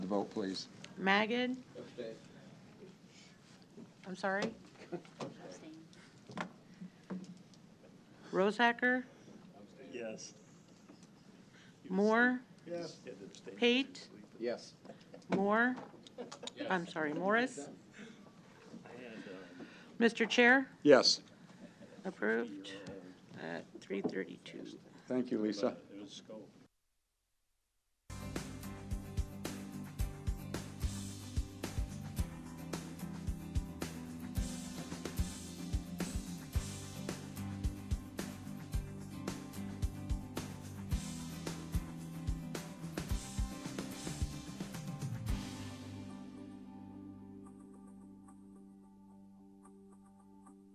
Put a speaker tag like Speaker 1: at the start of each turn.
Speaker 1: vote, please.
Speaker 2: Magid? I'm sorry? Rosehacker?
Speaker 3: Yes.
Speaker 2: Moore?
Speaker 3: Yes.
Speaker 2: Pate?
Speaker 1: Yes.
Speaker 2: Moore? I'm sorry, Morris? Mr. Chair,
Speaker 1: Yes.
Speaker 2: approved at 3:32.
Speaker 1: Thank you, Lisa.
Speaker 3: It was scope.